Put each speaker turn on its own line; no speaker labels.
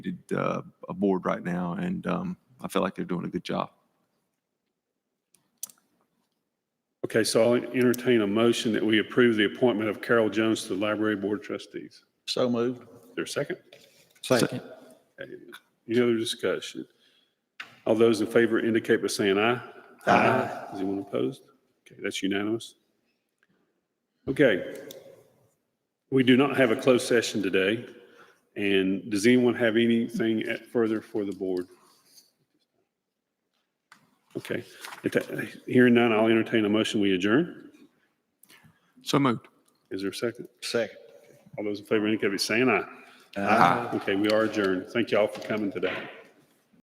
needed uh, a board right now, and um, I feel like they're doing a good job.
Okay, so I'll entertain a motion that we approve the appointment of Carol Jones to the Library Board of Trustees.
So moved.
Is there a second?
Second.
Okay, Any other discussion? All those in favor indicate by saying aye. Aye. Is anyone opposed? Okay, that's unanimous. Okay. We do not have a closed session today. And does anyone have anything at- further for the board? Okay, If that- hearing none, I'll entertain a motion. We adjourn.
So moved.
Is there a second?
Second.
All those in favor indicate by saying aye.
Aye.
Okay, we are adjourned. Thank y'all for coming today.